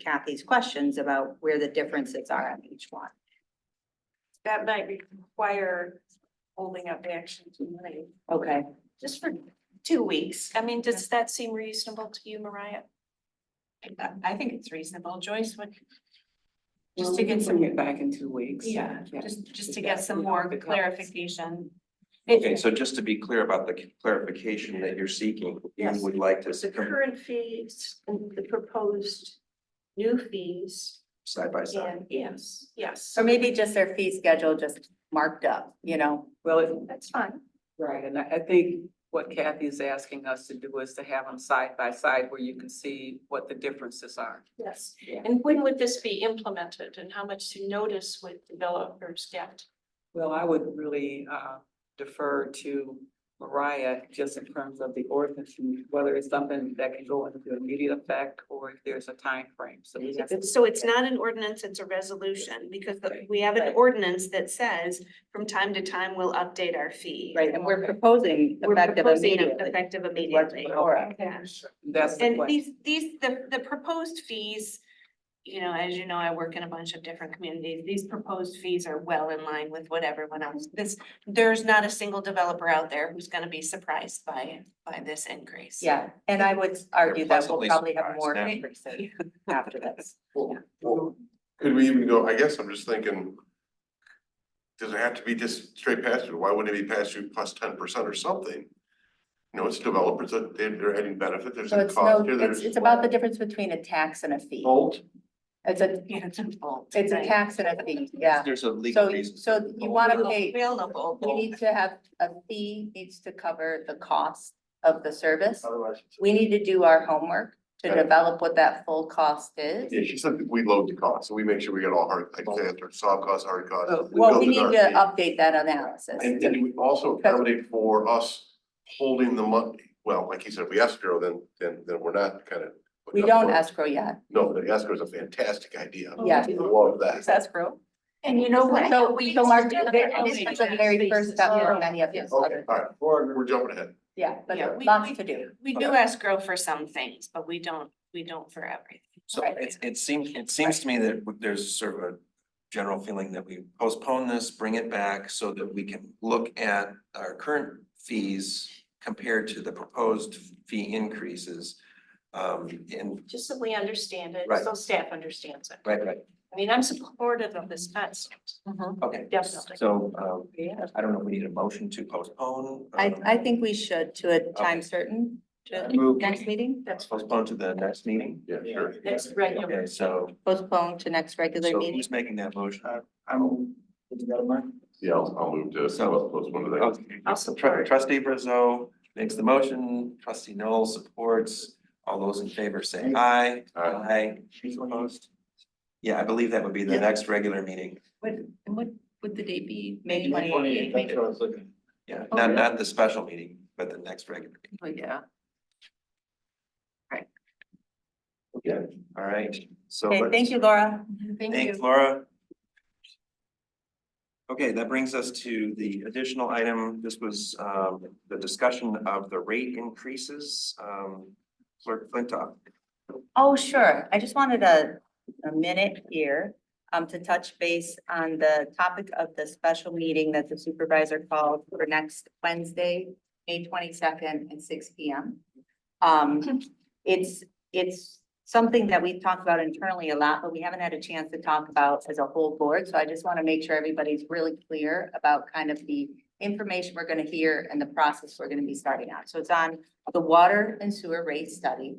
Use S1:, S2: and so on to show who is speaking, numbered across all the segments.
S1: Kathy's questions about where the differences are on each one.
S2: That might require holding up action tonight,
S1: Okay.
S2: just for two weeks. I mean, does that seem reasonable to you, Mariah? I think it's reasonable. Joyce, what? Just to get some,
S3: Bring it back in two weeks.
S2: yeah,
S3: Yeah.
S2: just, just to get some more clarification.
S4: Okay, so just to be clear about the clarification that you're seeking, you
S2: Yes.
S4: would like to
S2: The
S4: come
S2: current fees and the proposed new fees
S4: side by side.
S2: and yes, yes,
S1: Or maybe just their fee schedule just marked up, you know?
S3: Well, it-
S2: that's fine.
S3: right, and I, I think what Kathy is asking us to do is to have them side by side where you can see what the differences are.
S2: Yes.
S3: Yeah.
S2: And when would this be implemented and how much notice would developers get?
S3: Well, I would really uh, defer to Mariah just in terms of the ordinance, and whether it's something that can go into immediate effect or if there's a time frame. So we have to.
S5: So it's not an ordinance, it's a resolution, because the-
S3: Right.
S5: we have an
S2: Right.
S5: ordinance that says from time to time, we'll update our fee.
S1: Right, and we're proposing
S5: We're
S1: effective
S5: proposing it
S1: immediately.
S5: Effective
S1: is what's
S5: immediately.
S1: before us.
S5: Yeah.
S3: That's the
S5: And
S3: question.
S5: these, these, the, the proposed fees, you know, as you know, I work in a bunch of different communities. These proposed fees are well in line with what everyone else, this, there's not a single developer out there who's gonna be surprised by, by this increase.
S1: Yeah, and I would argue that we'll
S4: Pleasantly
S1: probably have
S4: surprised
S1: more
S4: now.
S1: increases after this.
S6: Well, could we even go, I guess I'm just thinking. Does it have to be just straight pass through? Why wouldn't it be pass through plus ten percent or something? You know, it's developers, uh, they- they're adding benefit, there's
S1: So
S6: a
S1: it's no,
S6: cost here,
S1: it's,
S6: there's.
S1: it's about the difference between a tax and a fee.
S6: Bolt,
S1: It's a,
S5: Yeah, it's a bold.
S1: it's a
S5: right.
S1: tax and a fee, yeah.
S4: There's a legal
S1: So,
S4: reason.
S1: so you wanna pay,
S5: We all know bold.
S1: you need to have, a fee needs to cover the cost of the service.
S6: otherwise, it's-
S1: We need to do our homework to
S6: Right.
S1: develop what that full cost is.
S6: yeah, she said that we load the cost, so we make sure we get all hard, like, say, our soft costs, hard costs.
S1: Oh, Well,
S6: build
S1: we
S6: in
S1: need
S6: our
S1: to
S6: fee.
S1: update that analysis.
S6: And then we also accommodate for us holding the money, well, like you said, if we escrow, then, then, then we're not kind of.
S1: We don't escrow yet.
S6: No, the escrow is a fantastic idea.
S1: Yeah.
S6: I Love that.
S1: escrow.
S2: And you know what?
S1: So,
S2: We
S1: so Mark,
S2: still
S1: this is the very first step for many of these
S6: Okay,
S1: other,
S6: all right, we're jumping ahead.
S1: yeah, but
S5: Yeah, we-
S1: lots
S5: we-
S1: to do.
S5: We do escrow for some things, but we don't, we don't for everything.
S4: So it, it seems, it seems to me that there's sort of a general feeling that we postpone this, bring it back so that we can look at our current fees compared to the proposed fee increases. Um, and,
S2: Just so we understand it,
S4: Right.
S2: so staff understands it.
S4: right, right,
S2: I mean, I'm supportive of this concept,
S4: okay.
S2: definitely.
S4: So, um,
S2: Yeah.
S4: I don't know, if we need a motion to postpone.
S1: I,
S4: um,
S1: I think we should to a time certain, to
S4: Move.
S1: next meeting,
S2: That's
S4: Postpone to the next meeting?
S6: Yeah, sure.
S2: Next regular.
S4: Okay, so,
S1: postpone to next regular
S4: so
S1: meeting.
S4: who's making that motion?
S1: Uh,
S4: I'm.
S6: Yeah, I'll, I'll move to,
S4: So-
S6: I'll post one of those.
S2: I'll support.
S4: Oh, Trustee Brazo makes the motion, trustee Noel supports, all those in favor say aye.
S6: Aye.
S4: Aye. Opposed? Yeah, I believe that would be the
S1: Yeah.
S4: next regular meeting,
S1: Would the date be?
S5: May
S1: May Oh, twenty eighth.
S4: yeah, not, not the special meeting, but the next regular. meeting.
S1: Oh,
S3: But yeah.
S4: Okay, all right, so.
S1: Okay,
S4: let's-
S1: thank you, Laura.
S4: Thanks, Laura. Okay, that brings us to the additional item. This was um the discussion of the rate increases. Um Clerk Flintoff.
S1: Oh, sure. I just wanted a, a minute here um, to touch base on the topic of the special meeting that the supervisor called for next Wednesday, May twenty-second at six P M. Um, it's, it's something that we've talked about internally a lot, but we haven't had a chance to talk about as a whole board. So I just want to make sure everybody's really clear about kind of the information we're going to hear and the process we're going to be starting on. So it's on the water and sewer rate study.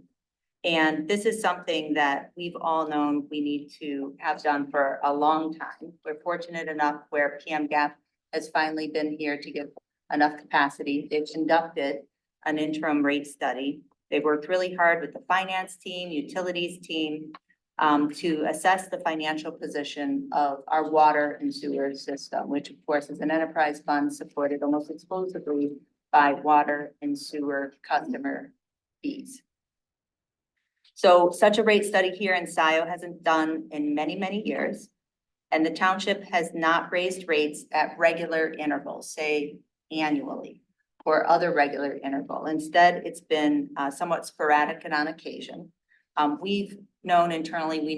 S1: And this is something that we've all known we need to have done for a long time. We're fortunate enough where PM Gap has finally been here to give enough capacity. They've conducted an interim rate study. They've worked really hard with the finance team, utilities team, um, to assess the financial position of our water and sewer system, which of course is an enterprise fund supported almost exclusively by water and sewer customer fees. So such a rate study here in SiO hasn't done in many, many years. And the township has not raised rates at regular intervals, say annually or other regular interval. Instead, it's been uh, somewhat sporadic and on occasion. Um, we've known internally, we